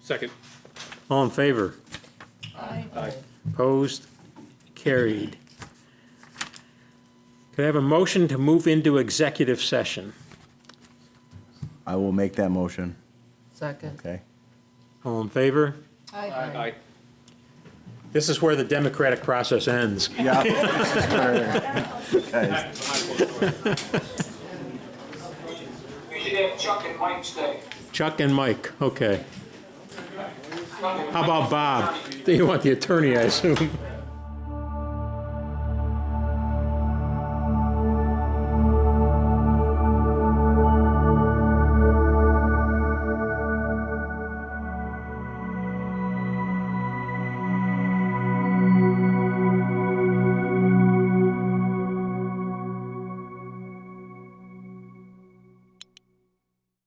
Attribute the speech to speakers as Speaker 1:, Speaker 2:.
Speaker 1: Second.
Speaker 2: All in favor?
Speaker 1: Aye.
Speaker 2: Opposed? Carried. Could I have a motion to move into executive session?
Speaker 3: I will make that motion,
Speaker 4: Second.
Speaker 3: okay?
Speaker 2: All in favor?
Speaker 1: Aye.
Speaker 2: This is where the democratic process ends.
Speaker 5: We should have Chuck and Mike stay.
Speaker 2: Chuck and Mike, okay.
Speaker 5: How
Speaker 2: How about Bob? You want the attorney, I assume?